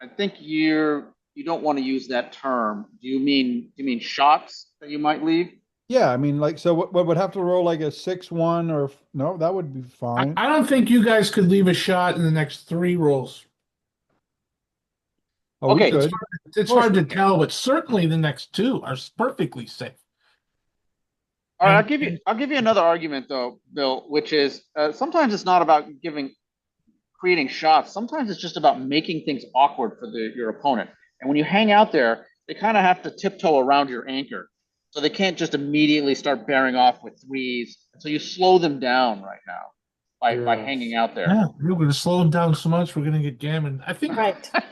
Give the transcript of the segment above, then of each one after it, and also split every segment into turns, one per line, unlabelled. I think you're, you don't want to use that term. Do you mean, do you mean shots that you might leave?
Yeah, I mean, like, so what, what would have to roll like a six, one, or, f- no, that would be
I,
fine.
I don't think you guys could leave a shot in the next three rolls.
Oh, we
okay,
could.
It's
course
hard
we
to
can.
tell, but certainly the next two are s- perfectly safe.
All right, I'll
And-
give you,
and-
I'll give you another argument though, Bill, which is, uh, sometimes it's not about giving, creating shots. Sometimes it's just about making things awkward for the, your opponent. And when you hang out there, they kind of have to tiptoe around your anchor. So they can't just immediately start bearing off with threes. So you slow them down right now by, by
Yeah.
hanging out there.
Yeah, we're going to slow them down so much. We're going to get gammon. I think.
Right.
I,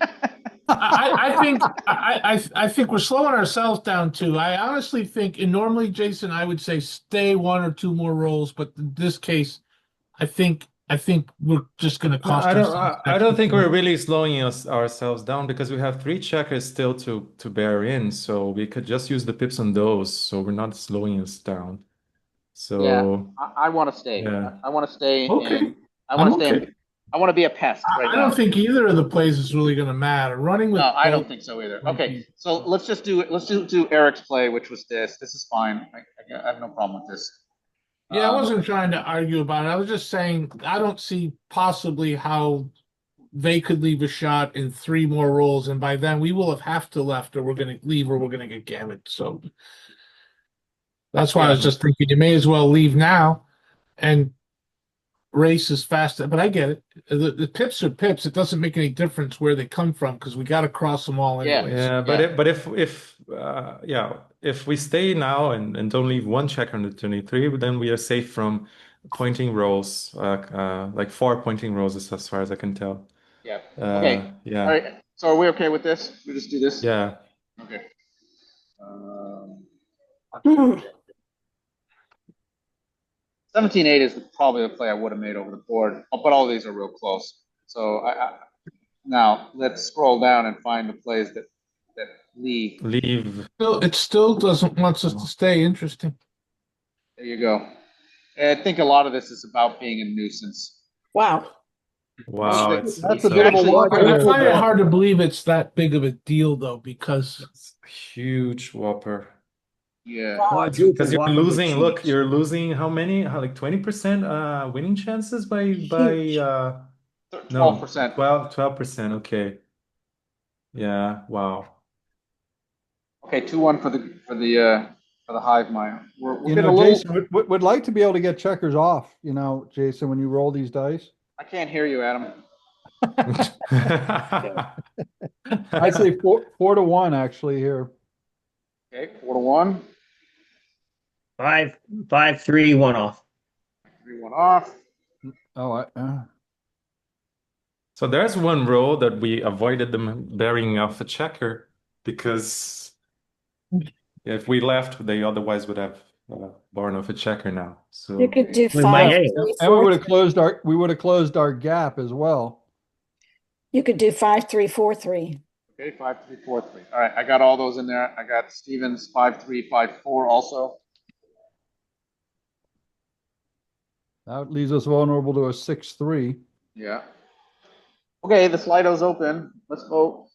I- I think I, I I think we're slowing ourselves down too. I honestly think, and normally, Jason, I would say stay one or two more rolls, but in this case, I think I think we're just going to cost.
I don't. I,
ourselves
I don't think
extra
we're
time.
really slowing us ourselves down because we have three checkers still to to bear in, so we could just use the pips on those, so we're not slowing us down. So
I, I want to stay.
Yeah.
I want to stay.
Okay.
And I want to
I'm
stay.
okay.
And, I want to be a pest.
I-
Right
I
now.
don't think either of the plays is really going to matter. Running with
No, I don't
both-
think so either. Okay, so let's just do let's do, do Eric's play, which was this. This is fine. I, I, I have no problem with this.
Yeah, I
Um,
wasn't trying to argue about it. I was just saying I don't see possibly how they could leave a shot in three more rolls, and by then we will have half to left, or we're going to leave, or we're going to get gammoned. So that's why I was just thinking you may as well leave now and race as fast. But I get it. The, the pips are pips. It doesn't make any difference where they come from because we got to cross them all
Yeah.
anyways.
yeah, but
Yeah.
if but if if uh, yeah, if we stay now and and don't leave one checker on the 23, then we are safe from pointing rolls, uh, uh, like four pointing rolls as as far as I can tell.
Yeah. Okay.
Uh, yeah,
All right. So are we okay with this? We just do this.
yeah.
Okay. Um,
Mm.
Seventeen eight is probably the play I would have made over the board, but all these are real close. So I, I now let's scroll down and find the plays that that leave.
Leave.
Still, it still doesn't want us to stay interesting.
There you go. And I think a lot of this is about being a nuisance.
Wow.
Wow,
That's-
it's
that's
it's
a bit of a
Actually,
whopper.
I find it
Yeah.
hard to believe it's that big of a deal though, because
It's a huge whopper.
Yeah.
Wow.
Because you're losing, look, you're losing how many? How, like 20% uh winning chances by by uh no,
Twelve percent.
12 12%, okay. Yeah, wow.
Okay, two one for the for the uh for the hive mind. We're we're
You
getting a
know,
little.
Jason, would- would, would like to be able to get checkers off, you know, Jason, when you roll these dice.
I can't hear you, Adam.
I'd say four, four to one actually here.
Okay, four to one,
Five, five, three, one off.
three one off.
Oh, I, uh,
So there's one row that we avoided them bearing off a checker because if we left, they otherwise would have uh, borne off a checker now. So
You could do
We might-
five.
hey,
three,
and we
four.
would have closed our, we would have closed our gap as well.
You could do five, three, four, three.
Okay, five three four three. All right, I got all those in there. I got Stevens five three five four also.
That leaves us vulnerable to a six, three.
Yeah. Okay, the Slido's open. Let's vote.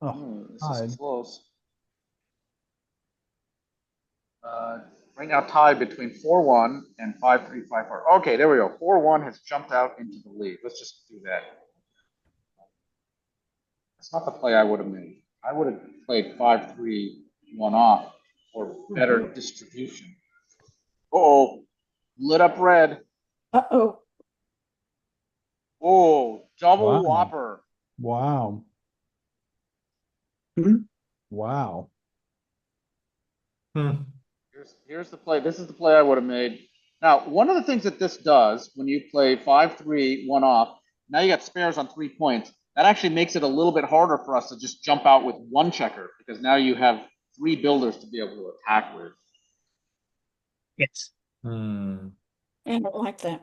Oh,
Hmm, this
tied.
is close. Uh, right now tied between four one and five three five four. Okay, there we go. Four one has jumped out into the lead. Let's just do that. That's not the play I would have made. I would have played five three one off for better distribution. Oh, lit up red.
Uh-oh.
Oh, double
Wow.
whopper.
wow.
Mm-hmm.
Mhm.
Wow.
Hmm.
Here's, here's the play. This is the play I would have made. Now, one of the things that this does when you play five, three, one off, now you got spares on three points. That actually makes it a little bit harder for us to just jump out with one checker because now you have three builders to be able to attack with.
Yes.
Hmm.
I don't like that.